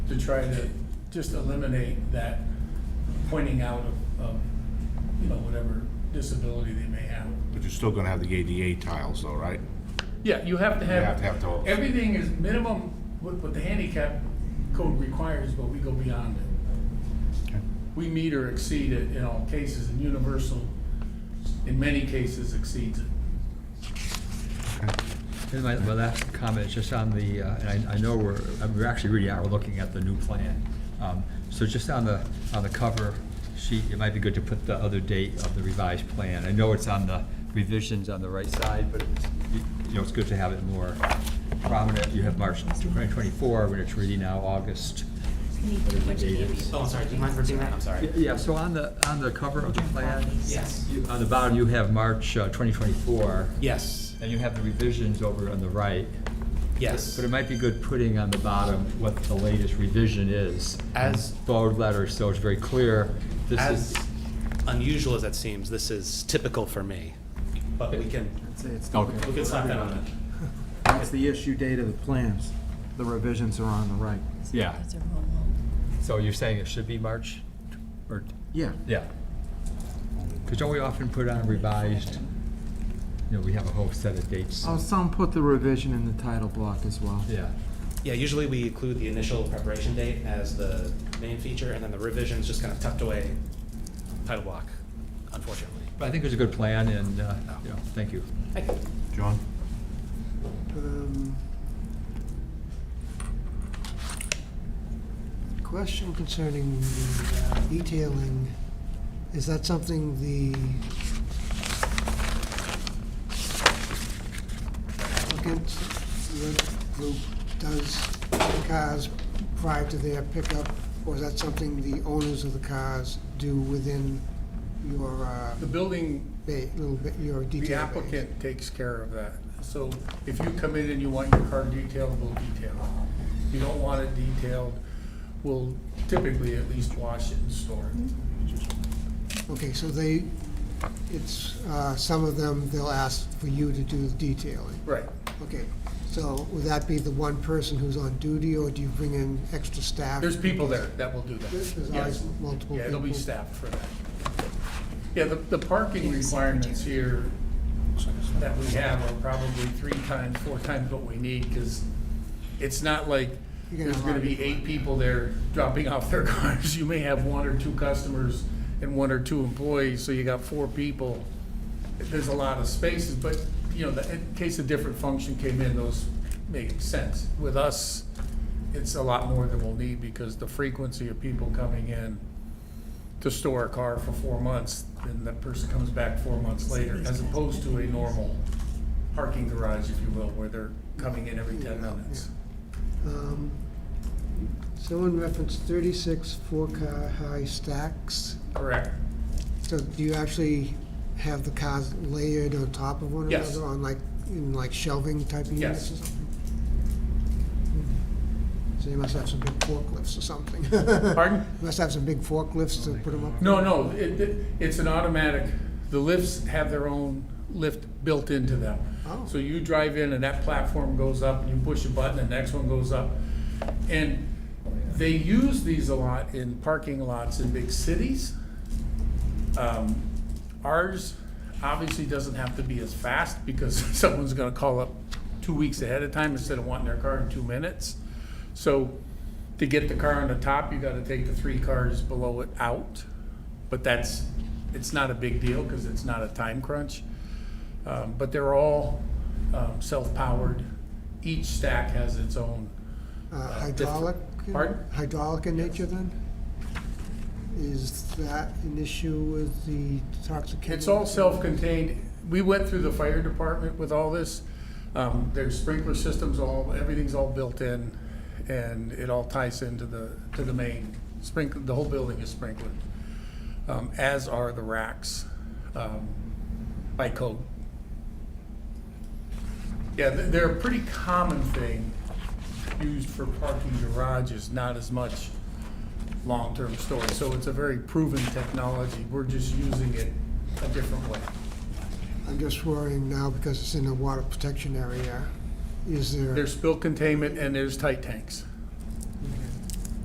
to try to just eliminate that pointing out of, of, you know, whatever disability they may have. But you're still gonna have the ADA tiles though, right? Yeah, you have to have. have to have those. Everything is minimum, what, what the handicap code requires, but we go beyond it. We meet or exceed it in all cases, and universal, in many cases, exceeds it. And my, my last comment is just on the, uh, and I, I know we're, uh, we're actually really are looking at the new plan. Um, So just on the, on the cover sheet, it might be good to put the other date of the revised plan. I know it's on the revisions on the right side, but it's, you- you know, it's good to have it more prominent. You have March twenty twenty-four, when it's really now August. Oh, I'm sorry, do you mind repeating that? I'm sorry. Yeah, so on the, on the cover of the plan, Yes. you- on the bottom, you have March uh, twenty twenty-four, Yes, and you have the revisions over on the right. yes. But it might be good putting on the bottom what the latest revision is. As- Bold letters, so it's very clear, this As is, unusual as that seems, this is typical for me, but we can, It's- It's, we can slap that on it. that's the issue date of the plans. The revisions are on the right. Yeah. That's a wrong one. so you're saying it should be March, or, Yeah. yeah. Because don't we often put on revised, you know, we have a whole set of dates, Oh, some put the revision in the title block as well. yeah. Yeah, usually we include the initial preparation date as the main feature, and then the revision's just kind of tucked away, title block, unfortunately. But I think it's a good plan, and, uh, you know, thank you. John? Um, Question concerning the detailing, is that something the applicant, your group, does to cars prior to their pickup? Or is that something the owners of the cars do within your, uh, The building ba- little bit, your detail? The base? applicant takes care of that. So if you come in and you want your car detailed, we'll detail it. If you don't want it detailed, we'll typically at least wash it and store it. Mm-hmm. Okay, so they, it's, uh, some of them, they'll ask for you to do the detailing. Right. Okay, so would that be the one person who's on duty, or do you bring in extra staff? There's people there that will do There's that. there's Yes. always multiple people. Yeah, it'll be staffed for that. Yeah, the, the parking requirements here that we have are probably three times, four times what we need, because it's not like You're gonna there's gonna have a lot of be eight people there dropping off their cars. You may have one or two customers and one or two employees, so you got four people. There's a lot of spaces, but, you know, the- in case a different function came in, those make sense. With us, it's a lot more than we'll need, because the frequency of people coming in to store a car for four months, then that person comes back four months later, as opposed to a normal parking garage, if you will, where they're coming in every ten minutes. Um, Someone referenced thirty-six four-car high stacks. Correct. So do you actually have the cars layered on top of one another? Yes. On like, in like shelving type of Yes. units or something? Hmm. So you must have some big forklifts or something. Pardon? You Must have some big forklifts to put them up? No, no, it, it- it's an automatic, the lifts have their own lift built into them. Oh. So you drive in and that platform goes up, and you push a button, and the next one goes up. And they use these a lot in parking lots in big cities. Um, Ours obviously doesn't have to be as fast because someone's gonna call up two weeks ahead of time instead of wanting their car in two minutes. So to get the car on the top, you gotta take the three cars below it out. But that's, it's not a big deal because it's not a time crunch. Um, But they're all um, self-powered. Each stack has its own. Uh, Uh, diff- Hydraulic? in- Pardon? Hydraulic in nature then? Is that an issue with the toxic chemical? It's all self-contained. We went through the fire department with all this. Um, There's sprinkler systems, all, everything's all built in, and it all ties into the, to the main. Sprinkler, the whole building is sprinkled, um, as are the racks um, by code. Yeah, they- they're a pretty common thing used for parking garages, not as much long-term storage. So it's a very proven technology. We're just using it a different way. I'm just worrying now because it's in a water protection area. Is there? There's spill containment and there's tight tanks.